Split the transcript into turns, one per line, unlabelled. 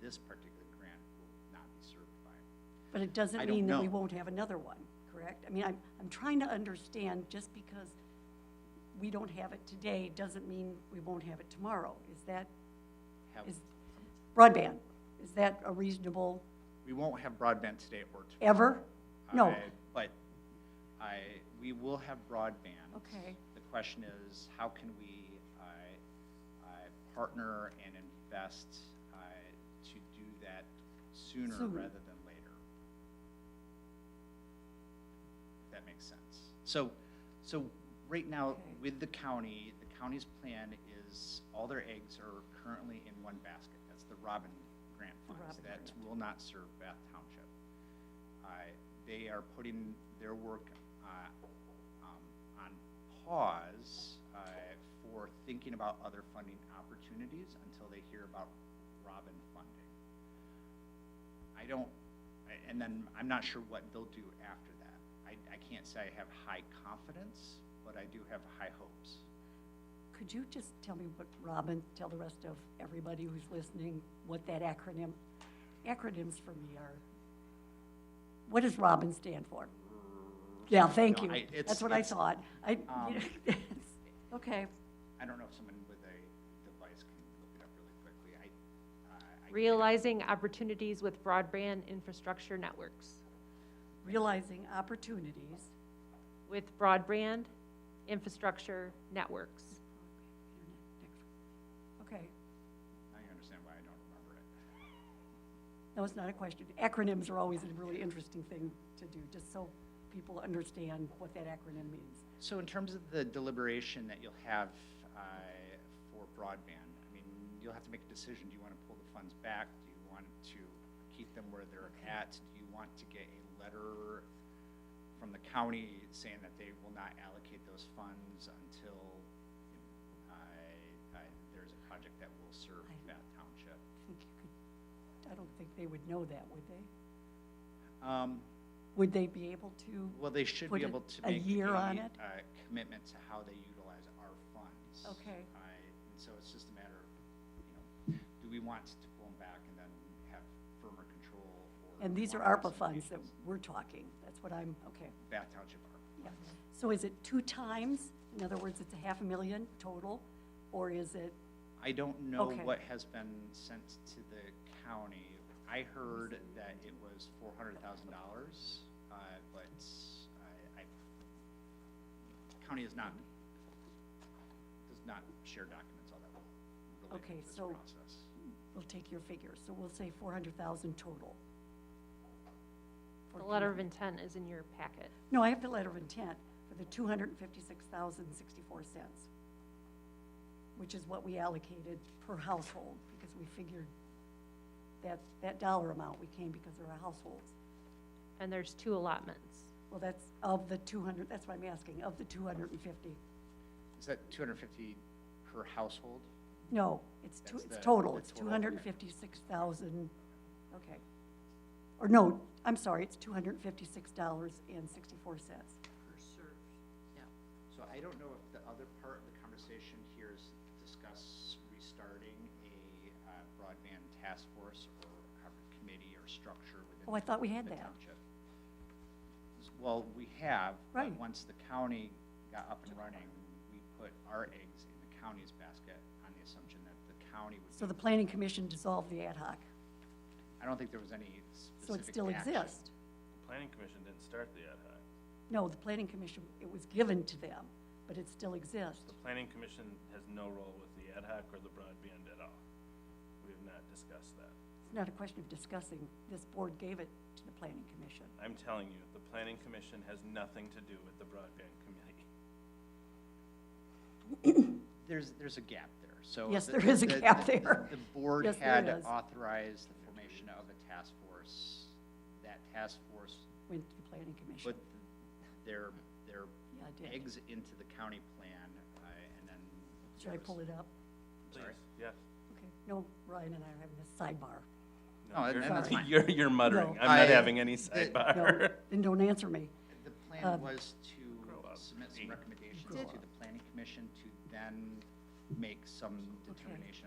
this particular grant will not be certified.
But it
I
doesn't
don't
mean that we
know.
won't have another one, correct? I mean, I'm, I'm trying to understand, just because we don't have it today, doesn't mean we won't have it tomorrow. Is that,
Have-
is broadband, is that a reasonable,
We won't have broadband today or tomorrow.
ever? No,
I- But I, we will have broadband.
Okay.
The question is, how can we, I, I partner and invest, I, to do that sooner
Sooner.
rather than later? If that makes sense. So, so right now,
Okay.
with the county, the county's plan is, all their eggs are currently in one basket. That's the Robin Grant
The
funds.
Robin
That
Grant.
will not serve Bath Township. I, they are putting their work, uh, um, on pause, uh, for thinking about other funding opportunities until they hear about Robin funding. I don't, I- and then I'm not sure what they'll do after that. I, I can't say I have high confidence, but I do have high hopes.
could you just tell me what, Robin, tell the rest of everybody who's listening what that acronym, acronyms for me are? What does Robin stand for? Yeah, thank
No,
you.
I- it's-
That's what I
it's-
thought. I,
Um,
okay.
I don't know if someone with a device can look it up really quickly. I, uh, I- I.
Realizing opportunities with broadband infrastructure networks.
realizing opportunities,
With broadband infrastructure networks.
okay,
I understand why I don't remember it.
no, it's not a question. Acronyms are always a really interesting thing to do, just so people understand what that acronym means.
So in terms of the deliberation that you'll have uh, for broadband, I mean, you'll have to make a decision. Do you want to pull the funds back? Do you want to keep them where they're at? Do you want to get a letter from the county saying that they will not allocate those funds until uh, uh, there's a project that will serve
I-
Bath Township?
I think you could, I don't think they would know that, would they?
Um,
Would they be able to?
Well, they should
Put
be
a-
able to
a
make
year
a,
on it?
uh, commitment to how they utilize our funds.
Okay.
I, and so it's just a matter of, you know, do we want to pull them back and then have firmer control? or
And these are
more
ARPA funds that
specifications?
we're talking, that's what I'm, okay,
Bath Township ARPA.
yeah. So is it two times, in other words, it's a half a million total, or is it,
I don't know
Okay.
what has been sent to the county. I heard that it was four hundred thousand dollars, uh, but I, I, county is not, does not share documents all that well
Okay,
related to this
so-
process.
we'll take your figures, so we'll say four hundred thousand total.
The
For
letter of intent is in your packet.
No, I have the letter of intent for the two hundred and fifty-six thousand sixty-four cents, which is what we allocated per household, because we figured that, that dollar amount we came because there are households.
And there's two allotments.
Well, that's of the two hundred, that's what I'm asking, of the two hundred and fifty.
Is that two hundred and fifty per household?
No, it's two,
That's
it's
the-
total,
the
it's two
total,
hundred and fifty-six thousand, okay. Or no, I'm sorry, it's two hundred and fifty-six dollars and sixty-four cents.
So I don't know if the other part of the conversation here is discuss restarting a uh, broadband task force or a committee or structure within.
Oh, I thought we had
the
that.
township. Well, we have, but
Right.
once the county got up and running, we put our eggs in the county's basket on the assumption that the county would.
So the
be-
planning commission dissolved the ad hoc,
I don't think there was any
so it
specific
still
action.
exists.
The planning commission didn't start the ad hoc.
No, the planning commission, it was given to them, but it still exists.
The planning commission has no role with the ad hoc or the broadband at all. We have not discussed that.
It's not a question of discussing, this board gave it to the planning commission.
I'm telling you, the planning commission has nothing to do with the broadband committee.
There's, there's a gap there, so.
Yes,
the-
there is a
the-
gap there.
The board
Yes, there
had
is.
authorized the formation of a task force. That task force
went to the planning commission.
put their, their
Yeah, I did.
eggs into the county plan, uh, and then.
Should I pull it up?
Sorry.
Please, Yes.
Okay, no, Ryan and I are having this sidebar.
No, and-
you're-
and that's fine.
You're, you're muttering.
No.
I'm not
I-
having any
the-
No,
sidebar.
then don't answer me.
The plan
Um,
was
Grow
to
up.
submit some
Did-
recommendations to the planning commission to then make some determination